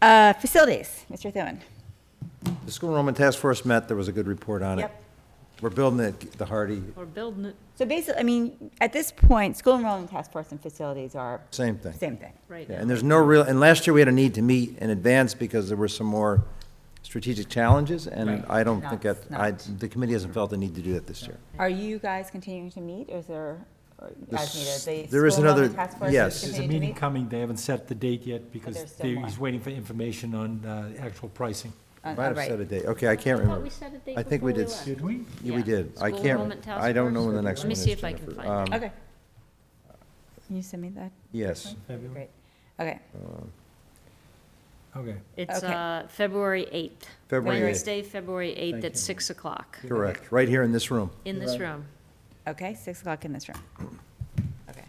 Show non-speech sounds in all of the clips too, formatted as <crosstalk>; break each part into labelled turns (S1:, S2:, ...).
S1: Uh, Facilities, Mr. Thune.
S2: The school enrollment task force met, there was a good report on it.
S1: Yep.
S2: We're building it, the Hardy,
S3: Or building it,
S1: So basically, I mean, at this point, school enrollment task force and facilities are
S2: same thing.
S1: same thing.
S3: right
S2: Yeah,
S3: now.
S2: And there's no real, and last year we had a need to meet in advance because there were some more strategic challenges, and I don't think that,
S1: Not-
S2: I, the committee hasn't felt the need to do that this year.
S1: Are you guys continuing to meet, or is there, or as
S2: This-
S1: needed? The
S2: there is
S1: school
S2: another-
S1: enrollment task force is
S2: yes.
S4: There's a
S1: continuing to
S4: meeting
S1: meet?
S4: coming, they haven't set the date yet because
S1: there's still
S4: they-
S1: one.
S4: he's waiting for information on uh, actual pricing.
S1: Uh,
S2: Might have
S1: right.
S2: set a date, okay, I can't
S3: I thought
S2: remember.
S3: we set a date
S2: I think
S3: before
S2: we
S3: we
S2: did,
S3: left.
S4: Did we?
S2: yeah, we
S3: Yeah.
S2: did. I
S3: School
S2: can't,
S3: enrollment task
S2: I don't know
S3: force.
S2: when the next
S3: Let
S2: one
S3: me
S2: is.
S3: see if I can
S2: Jennifer.
S3: find
S2: Um,
S1: Okay. Can you send me that?
S2: Yes,
S4: February?
S1: Great. Okay.
S4: Okay.
S3: It's
S1: Okay.
S3: uh, February 8th.
S2: February 8th.
S3: Wednesday, February 8th
S4: Thank
S3: at
S4: you.
S3: 6 o'clock
S2: correct, right here in this room.
S3: in this room.
S1: Okay, 6 o'clock in this room. Okay.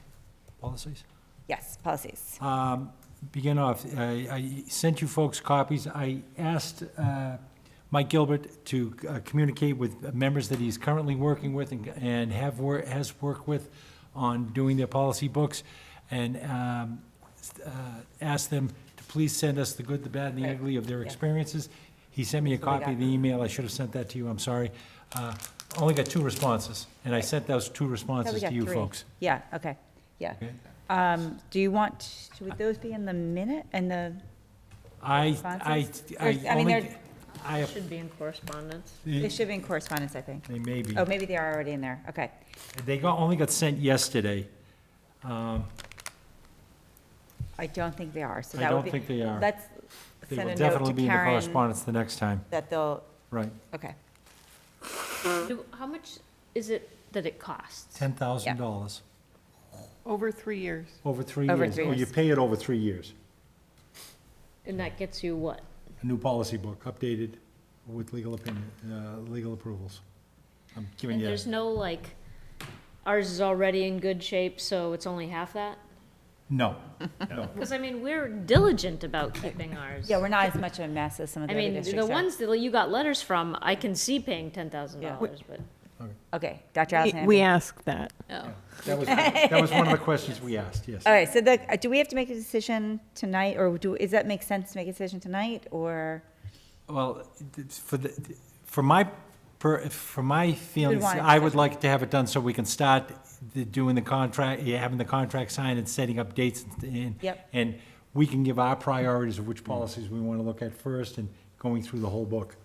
S4: Policies?
S1: Yes, policies.
S4: Um, Begin off, I I sent you folks copies. I asked uh, Mike Gilbert to uh, communicate with members that he's currently working with and- and have, wor- has worked with on doing their policy books, and um, s- uh, asked them to please send us the good, the bad, and the
S1: Right.
S4: ugly of their
S1: Yeah.
S4: experiences. He sent me a
S1: what we
S4: copy of the email. I should have sent that to you, I'm sorry. Uh, Only got two responses, and I sent those two
S1: Thought we
S4: responses
S1: got
S4: to you
S1: three.
S4: folks.
S1: Yeah, okay, yeah.
S4: Okay.
S1: Um, Do you want, would those be in the minute, in the,
S4: I, I,
S1: Responses? Or- I
S4: I
S1: mean,
S4: only,
S1: they're-
S4: I
S3: Should be in correspondence.
S1: they should be in correspondence, I think.
S4: They may be.
S1: Oh, maybe they are already in there, okay.
S4: They got, only got sent yesterday. Um,
S1: I don't think they are, so
S4: I
S1: that would
S4: don't
S1: be.
S4: think they are.
S1: Let's
S4: They
S1: send
S4: will
S1: a note
S4: definitely
S1: to
S4: be in the
S1: Karen
S4: correspondence the next time,
S1: that they'll,
S4: right.
S1: okay,
S3: Do- How much is it that it costs?
S4: Ten thousand dollars
S5: Over three years.
S4: over three years.
S1: Over three
S4: Or you
S1: years.
S4: pay it over three years.
S3: And that gets you what?
S4: A new policy book, updated with legal opinion, uh, legal approvals. I'm giving
S3: And
S4: you,
S3: there's no like, ours is already in good shape, so it's only half that?
S4: no, no.
S3: Because I mean, we're diligent about keeping ours.
S1: yeah, we're not as much of a mess as some of
S3: I
S1: the other
S3: mean, the
S1: districts are.
S3: ones that you got letters from, I can see paying $10,000, but,
S1: Okay, Dr. Allison.
S5: We asked that.
S3: oh.
S4: That was, that was one
S1: <laughs>
S4: of the questions we asked, yes.
S1: All right, so the, uh, do we have to make a decision tonight, or do, is that make sense to make a decision tonight, or?
S4: Well, it's for the, for my, per- for my feelings,
S1: want it
S4: I would like to have it done so we can start the- doing the contract, yeah, having the contract signed and setting up dates and.
S1: Yep.
S4: And we can give our priorities of which policies we want to look at first and going through the whole book.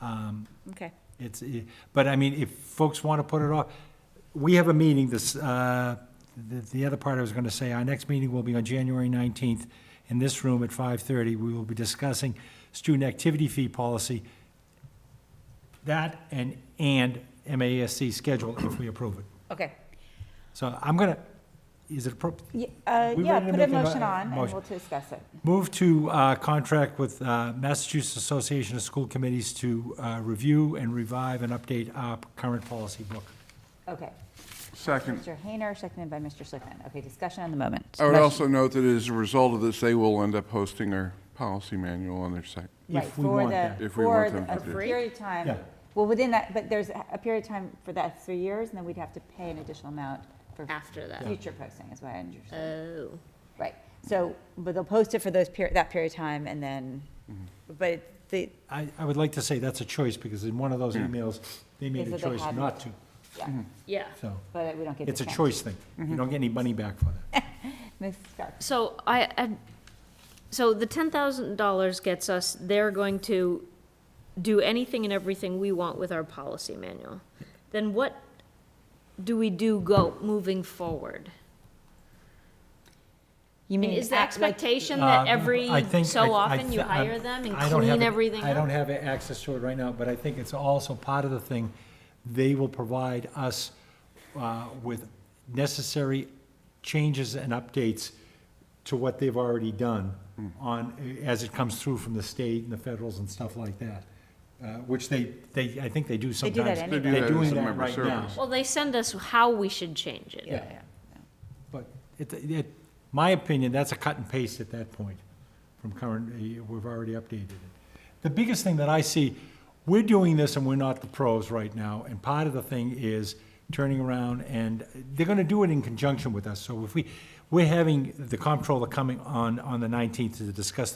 S4: Um,
S1: Okay,
S4: It's, eh, but I mean, if folks want to put it off, we have a meeting this, uh, the, the other part I was going to say, our next meeting will be on January 19th in this room at 5:30. We will be discussing student activity fee policy, that and, and MASC schedule if we approve it.
S1: okay.
S4: So I'm going to, is it appropriate?
S1: Y- uh,
S4: We
S1: Yeah,
S4: ready to
S1: put a
S4: make a mo-
S1: motion on, and
S4: motion?
S1: we'll discuss it.
S4: Move to uh, contract with uh, Massachusetts Association of School Committees to uh, review and revive and update our current policy book.
S1: Okay.
S6: Second.
S1: Mr. Hayner, seconded by Mr. Schlickman. Okay, discussion on the moment.
S6: I would
S1: Motion-
S6: also note that as a result of this, they will end up hosting our policy manual on their site.
S1: Right,
S4: If we
S1: for
S4: want
S1: the,
S4: that.
S6: If we
S1: for
S6: want
S1: the-
S6: them
S1: a
S6: to do.
S1: period of
S4: Yeah.
S1: time, well, within that, but there's a a period of time for that three years, and then we'd have to pay an additional amount for
S3: After that.
S1: future posting, is what I understand.
S3: Oh.
S1: Right, so, but they'll post it for those period, that period of time, and then,
S4: Mm-hmm.
S1: but it- the,
S4: I, I would like to say that's a choice, because in one of those emails, they made
S1: They
S4: a
S1: said they
S4: choice
S1: hadn't.
S4: not to,
S1: yeah,
S3: Yeah.
S4: so.
S1: but we don't get.
S4: Mm-hmm. It's a
S1: discounts.
S4: choice thing. You don't get any money back for that.
S1: Ms. Stark,
S3: So I, I, so the ten thousand dollars gets us, they're going to do anything and everything we want with our policy manual. Then what do we do go, moving forward?
S1: you
S3: I mean,
S1: mean,
S3: is the
S1: act like-
S3: expectation
S4: Um,
S3: that every
S4: I think- I- I
S3: so often you
S4: th-
S3: hire them and
S4: I don't have
S3: clean
S4: it-
S3: everything
S4: I don't
S3: up?
S4: have access to it right now, but I think it's also part of the thing. They will provide us uh, with necessary changes and updates to what they've already done
S6: Hmm.
S4: on, as it comes through from the state and the federals and stuff like that, uh, which they, they, I think they
S1: do
S4: do
S1: that
S4: sometimes.
S1: anyway. They
S6: do that
S4: They're
S6: as
S4: doing
S6: a
S4: that
S6: member
S4: right now.
S6: service.
S3: Well, they send us how we should change it.
S1: Yeah, yeah.
S4: But it, it, my opinion, that's a cut and paste at that point from current, eh, we've already updated it. The biggest thing that I see, we're doing this and we're not the pros right now, and part of the thing is turning around and they're gonna do it in conjunction with us. So if we, we're having the comptroller coming on, on the nineteenth to discuss